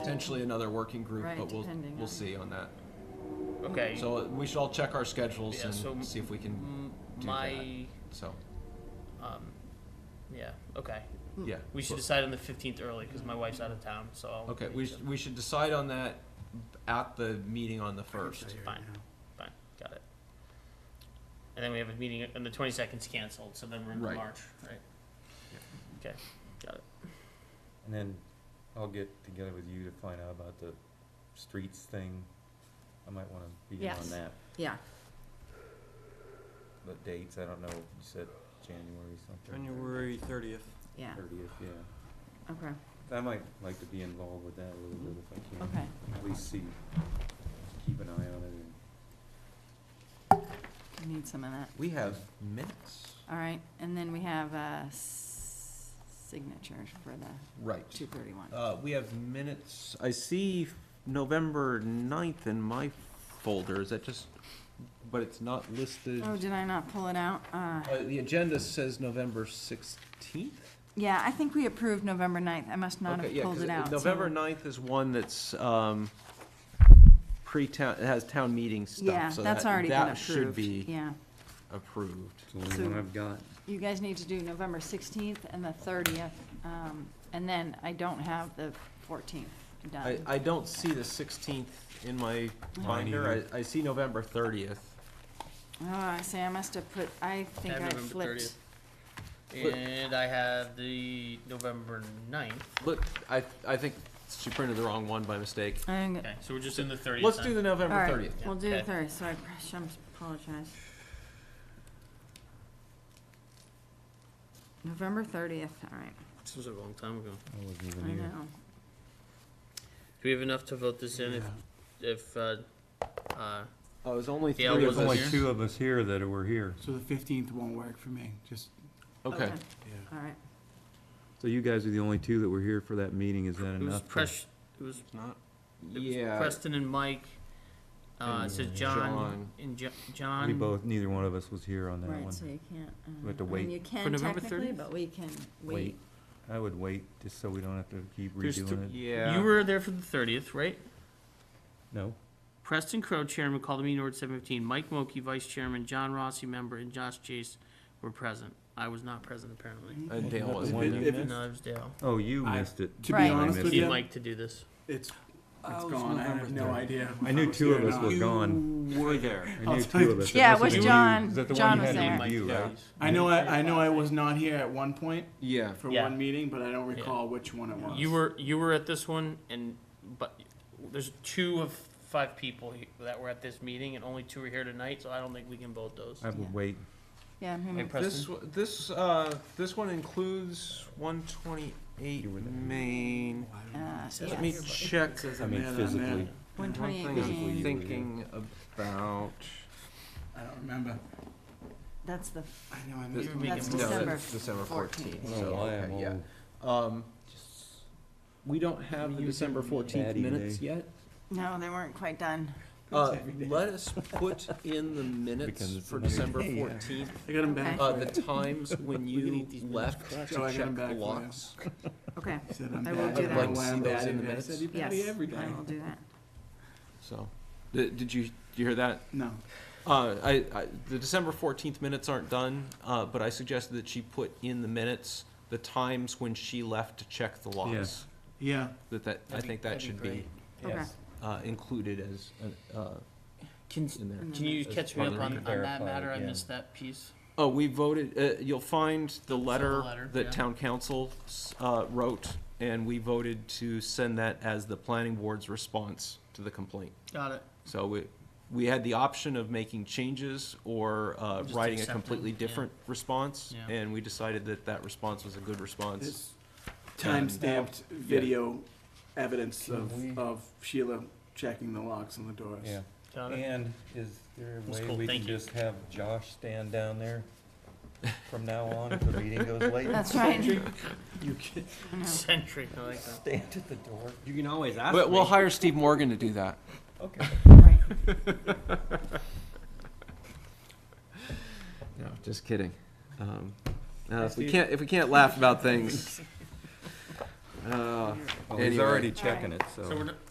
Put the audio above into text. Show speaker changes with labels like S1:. S1: Potentially another working group,
S2: Right,
S1: but we'll,
S2: depending
S1: we'll
S2: on-
S1: see on that.
S3: Okay.
S1: So uh, we should all check our schedules
S3: Yeah, so
S1: and see if we can,
S3: m-
S1: do
S3: my,
S1: so,
S3: um, yeah, okay.
S2: Hmm.
S1: yeah.
S3: We should decide on the fifteenth early because my wife's out of town, so. I'll
S1: Okay,
S3: make
S1: we,
S3: the-
S1: sh- we should decide on that at the meeting on the first.
S3: Fine. Fine, got it. And then we have a meeting, and the twenty-second's canceled, so then we're into
S1: Right.
S3: March, right? Okay, got it.
S4: And then I'll get together with you to find out about the streets thing. I might wanna be in
S2: Yes.
S4: on that,
S2: Yeah,
S4: but dates, I don't know, you said January something.
S5: January thirtieth.
S2: yeah,
S4: Thirtieth, yeah.
S2: okay,
S4: I might like to be involved with that a little bit if I can.
S2: okay.
S4: At least see, keep an eye on it. and-
S2: I need some of that.
S4: We have minutes.
S2: All right, and then we have uh, s- signatures for the
S1: Right.
S2: 231.
S1: Uh, we have minutes. I see November ninth in my folder. Is that just, but it's not listed.
S2: Oh, did I not pull it out? Uh,
S1: Uh, the agenda says November sixteenth?
S2: Yeah, I think we approved November 9th. I must not
S1: Okay,
S2: have
S1: yeah,
S2: pulled
S1: 'cause
S2: it out. so-
S1: November ninth is one that's, um, pre-town, it has town meeting stuff.
S2: Yeah,
S1: so
S2: that's
S1: that-
S2: already been
S1: That should
S2: approved.
S1: be
S2: Yeah.
S1: approved.
S4: It's the only one
S2: So-
S4: I've got.
S2: You guys need to do November 16th and the 30th, um, and then I don't have the 14th
S1: I,
S2: done.
S1: I don't see the sixteenth in my
S4: Mine
S1: binder.
S4: either.
S1: I, I see November thirtieth.
S2: Oh, I see, I must have put, I think
S3: have
S2: I
S3: November
S2: flipped.
S3: 30th. And I have the November ninth.
S1: Look, I, I think she printed the wrong one by mistake.
S2: I'm g-
S3: Okay, so we're just in the 30th
S1: Let's do the
S2: All
S1: November
S2: right,
S1: thirtieth.
S2: we'll do the
S3: Okay.
S2: 30th, so I pr- I'm- apologize. November 30th, all right,
S3: This was a long time ago.
S4: I wasn't even
S2: I
S4: here.
S2: know.
S3: Do we have enough to vote this in if, if, uh, uh,
S1: Oh, it was only
S3: Yeah,
S1: three
S3: it
S1: of
S3: was only
S1: us.
S3: here. two
S4: of us here that were here.
S5: So the fifteenth won't work for me, just,
S1: Okay,
S2: All right,
S4: So you guys are the only two that were here for that meeting, is that
S3: it was
S4: enough? to-
S3: Presh, it was it was
S1: yeah,
S3: Preston and Mike, uh, it says
S4: And
S3: John
S1: John.
S3: and Jo- John.
S4: We both, neither one of us was here on that one.
S2: right, so you can't. uh,
S4: We have to
S2: I mean,
S4: wait.
S2: You
S5: For
S2: can
S5: November
S2: technically,
S5: 30th?
S2: but we can wait.
S4: Wait, I would wait, just so we don't have to keep
S3: There's th-
S4: redoing it.
S1: yeah.
S3: You were there for the thirtieth, right?
S4: No?
S3: Preston Crowe, chairman, called the meeting order at seven fifteen. Mike Mokey, vice chairman, John Rossi, member, and Josh Chase were present. I was not present apparently.
S1: And uh, Dale
S4: Not the
S1: wasn't
S4: one
S1: either.
S4: you
S5: If-
S4: missed?
S3: No, it was Dale.
S4: Oh, you
S5: I-
S4: missed it.
S5: to be
S2: Right.
S5: honest
S4: I
S3: Would
S5: with
S4: missed
S3: you
S4: it.
S5: you,
S3: like to do this?
S5: it's, it's
S6: Oh, it's
S5: gone, I have
S6: November
S5: no
S6: 30th.
S5: idea. if
S4: I knew
S5: was
S4: two
S5: here
S4: of
S5: or
S4: us were
S5: not.
S4: gone.
S6: were there.
S4: I knew
S5: I'll tell
S4: two of
S5: you-
S4: us.
S2: Yeah, it
S4: That's
S2: was
S4: the one you-
S2: John.
S4: is that the one
S2: John
S4: you
S2: was
S4: had to
S2: there.
S4: review,
S1: Yeah.
S4: right?
S5: I know, I, I know I was not here at one point
S1: Yeah,
S5: for
S3: Yeah.
S5: one meeting, but I don't
S3: Yeah.
S5: recall which one it was.
S3: You were you were at this one, and but there's two of five people he- that were at this meeting, and only two are here tonight. So I don't think we can vote those.
S4: I would wait.
S2: Yeah, I'm
S3: Hey,
S2: gonna-
S1: this,
S3: Preston,
S1: w- this, uh, this one includes one twenty-eight Main.
S2: uh,
S3: says
S2: yes.
S1: Let me check
S5: It says
S4: I
S5: I'm
S4: mean,
S5: in, I'm
S4: physically.
S5: in.
S1: one thing
S2: 128
S4: Physically,
S1: I'm
S4: you
S2: Main.
S4: were
S1: thinking about.
S5: I don't remember.
S2: That's the,
S5: I know I
S1: This-
S5: missed
S3: You're
S5: one.
S3: making
S2: that's
S3: more-
S1: No,
S2: December
S1: that's December
S2: 14th.
S4: Oh, I
S1: 14th.
S4: don't know
S1: so,
S4: why I'm
S1: okay, yeah.
S4: all-
S1: Um, we don't have the December fourteenth
S4: Daddy
S1: minutes
S4: day.
S1: yet.
S2: no, they weren't quite done.
S1: Uh, let us put in the
S4: Because
S1: minutes
S4: it's
S1: for
S4: another
S1: December
S5: day, yeah.
S1: fourteenth,
S5: I got them back.
S1: uh,
S5: for
S1: the
S5: you.
S1: times when you left to
S5: Oh, I got
S1: check
S5: 'em back for you.
S1: blocks.
S2: Okay,
S5: I said I'm
S2: I will
S5: bad.
S2: do that.
S5: don't know why
S1: Like,
S5: I'm
S1: see those
S5: bad
S1: in the
S5: at it. I
S1: minutes?
S5: said you
S2: yes,
S5: bad every day.
S2: I will do that.
S1: So, did, did you, did you hear that?
S5: No,
S1: Uh, I, I, the December fourteenth minutes aren't done, uh, but I suggested that she put in the minutes the times when she left to check the locks.
S5: yeah,
S1: That, that, I
S3: That'd be-
S1: think that
S3: that'd be
S1: should be,
S3: great.
S2: Okay.
S1: uh, included as, uh, uh,
S3: Can
S1: in there.
S3: can you
S4: As
S3: catch me
S4: part
S3: up
S4: of
S3: on,
S4: the-
S3: on that
S4: Verify
S3: matter? I
S4: again.
S3: missed that piece.
S1: Oh, we voted, uh, you'll find the letter
S3: letter, yeah.
S1: that town council, s- uh, wrote, and we voted to send that as the planning board's response to the complaint.
S3: Got it.
S1: So we, we had the option of making changes or, uh,
S3: Just
S1: writing a
S3: accept them,
S1: completely
S3: yeah.
S1: different response,
S3: Yeah.
S1: and we decided that that response was a good response.
S5: it's time-stamped video evidence
S4: Can
S5: of,
S4: we-
S5: of Sheila checking the locks on the doors.
S4: Yeah.
S3: Got it.
S4: And is there a
S3: That's
S4: way
S3: cool,
S4: we
S3: thank
S4: can
S3: you.
S4: just have Josh stand down there from now on if the meeting goes late?
S2: That's right.
S5: You can,
S2: I know.
S3: Centric. I like that.
S4: Stand at the door.
S6: You can always ask
S1: But we'll
S6: me.
S1: hire Steve Morgan to do that.
S4: Okay.
S2: Right.
S1: No, just kidding. Um, uh, if we
S4: Steve.
S1: can't, if we can't laugh about things.
S7: Uh,
S1: Well, he's
S7: Anyway.
S1: already checking it,
S4: So we're,